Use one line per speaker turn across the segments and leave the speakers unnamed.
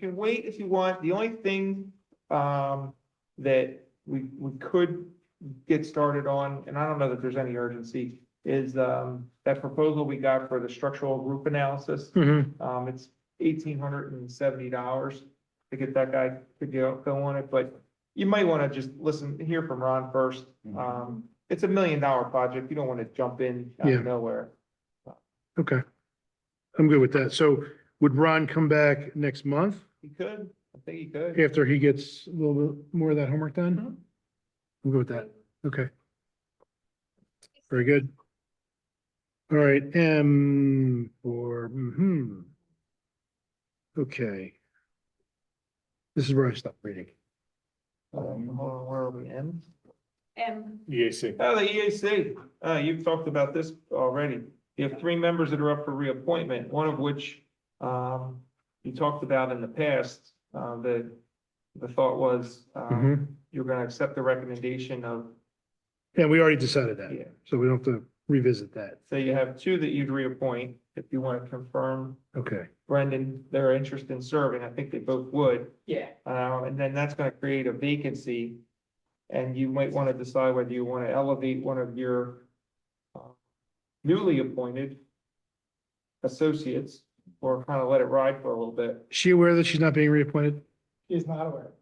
can wait if you want. The only thing, um, that we, we could get started on, and I don't know that there's any urgency, is, um, that proposal we got for the structural roof analysis.
Mhm.
Um, it's eighteen hundred and seventy dollars to get that guy to go, go on it, but you might want to just listen, hear from Ron first. Um, it's a million dollar project. You don't want to jump in out
Yeah.
of nowhere.
Okay. I'm good with that. So would Ron come back next month
He could, I think he could.
after he gets a little bit more of that homework done? I'm good with that. Okay. Very good. All right, M for, hmm. Okay. This is where I stopped reading.
Um, hold on, where are we in?
M,
EAC.
Oh, the EAC, uh, you've talked about this already. You have three members that are up for reappointment, one of which, um, you talked about in the past, uh, the, the thought was, um,
Mhm.
you're gonna accept the recommendation of,
Yeah, we already decided that,
yeah.
so we don't have to revisit that.
So you have two that you'd reappoint, if you wanna confirm
Okay.
Brendan, their interest in serving, I think they both would.
yeah,
Um, and then that's gonna create a vacancy. And you might wanna decide whether you wanna elevate one of your uh, newly appointed associates, or kinda let it ride for a little bit.
Is she aware that she's not being reappointed?
He's not aware.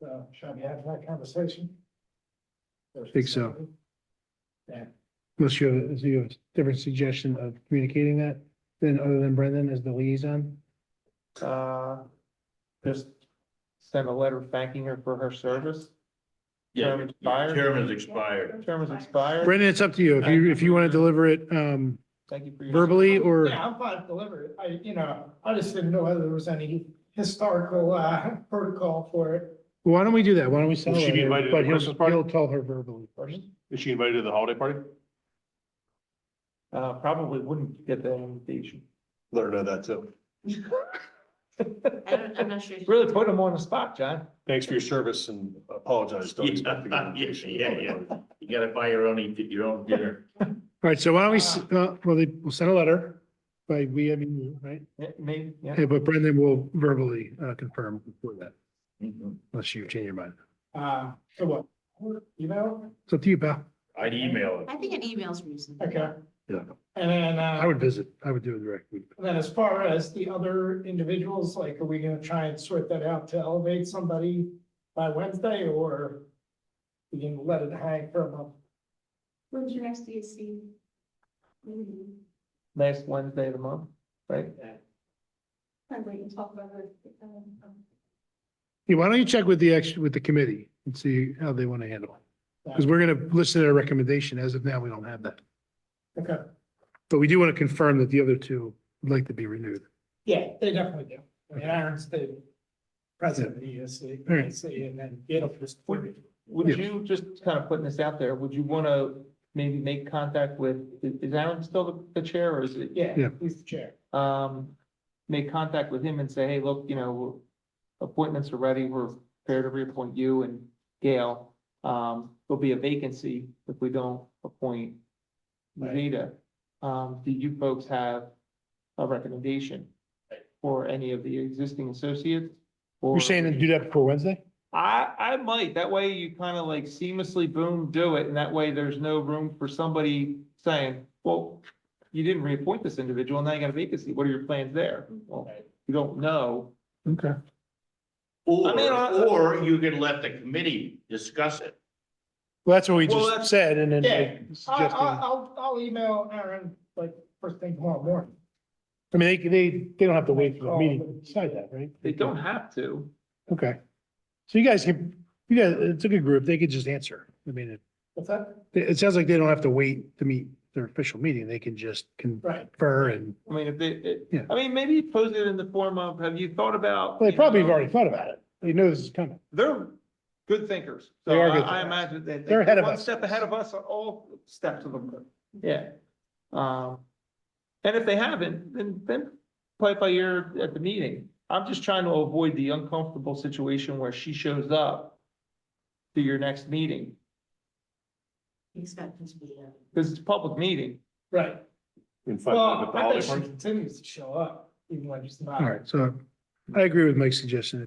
So should we have that conversation?
Think so. Unless you have, is you have a different suggestion of communicating that, then other than Brendan as the liaison?
Uh, just send a letter thanking her for her service.
Yeah,
Term expired.
term is expired.
Term is expired.
Brendan, it's up to you. If you, if you want to deliver it, um,
Thank you for your.
verbally or,
Yeah, I'm fine delivering. I, you know, I just didn't know whether there was any historical, uh, protocol for it.
why don't we do that? Why don't we sell
Will she be invited
it?
to
But
the
he'll,
Christmas party?
he'll tell her verbally first.
Is she invited to the holiday party?
Uh, probably wouldn't get that invitation.
Let her know that too.
I don't, I'm not sure.
Really put them on the spot, John.
Thanks for your service and apologize. Don't expect to get an invitation.
Yeah, yeah, You gotta buy your own, your own dinner.
All right, so why don't we, s- uh, well, they, we'll send a letter by we, I mean, you, right?
Yeah, Maybe, yeah.
Hey, But Brendan will verbally, uh, confirm before that, unless you change your mind.
Uh, so what, you know,
It's up to you, pal.
I'd email it.
I think an email's reasonable.
okay.
Yeah.
And then,
I
uh,
would visit. I would do it directly.
and then as far as the other individuals, like, are we gonna try and sort that out to elevate somebody by Wednesday or we can let it hang for a month?
When's your next DAC? Mm,
Last Wednesday of the month, right?
I'm waiting to talk about it. um, um,
Yeah, why don't you check with the ex, with the committee and see how they want to handle it? Because we're going to listen to their recommendation. As of now, we don't have that.
Okay,
But we do want to confirm that the other two would like to be renewed.
yeah, they definitely do. I mean, Aaron's the president of the E ESC,
All right.
and then it'll just.
Would
Yes.
you, just kind of putting this out there, would you want to maybe make contact with, i- is Aaron still the- the chair or is it?
Yeah.
Yeah, he's the chair.
Um, make contact with him and say, hey, look, you know, appointments are ready, we're prepared to reappoint you and Gail. Um, there'll be a vacancy if we don't appoint
Right.
Zeta. Um, do you folks have a recommendation? For any of the existing associates?
You're
or-
saying to do that before Wednesday?
I, I might, that way you kind of like seamlessly boom, do it, and that way there's no room for somebody saying, well, you didn't reappoint this individual, now you got a vacancy, what are your plans there? Well, you don't know.
Okay.
I
Or,
mean, I-
or you can let the committee discuss it.
Well, that's what we
Well, that's-
just said and then
Yeah.
they
I,
suggested.
I,
I
I'll, I'll email Aaron like first thing tomorrow morning.
mean, they, they, they don't have to wait for the meeting to decide that, right?
They don't have to.
Okay. So you guys can, you guys, it's a good group. They could just answer. I mean, it,
What's that?
it sounds like they don't have to wait to meet their official meeting. They can just
Right.
confer and,
I mean, if they,
Yeah.
it, I mean, maybe pose it in the form of, have you thought about?
well, they
you
probably have
know,
already thought about it. They know this is coming.
They're good thinkers.
They
So
are
I
good
I
thinkers.
imagine that.
They're ahead of
one
us.
Step ahead of us on all steps of them, yeah. Um, and if they haven't, then, then play it by ear at the meeting. I'm just trying to avoid the uncomfortable situation where she shows up to your next meeting,
He's got this meeting.
because it's a public meeting.
Right.
In five,
Well,
the
I bet
holiday
she
party.
continues to show up even when she's not.
All right. So I agree with Mike's suggestion.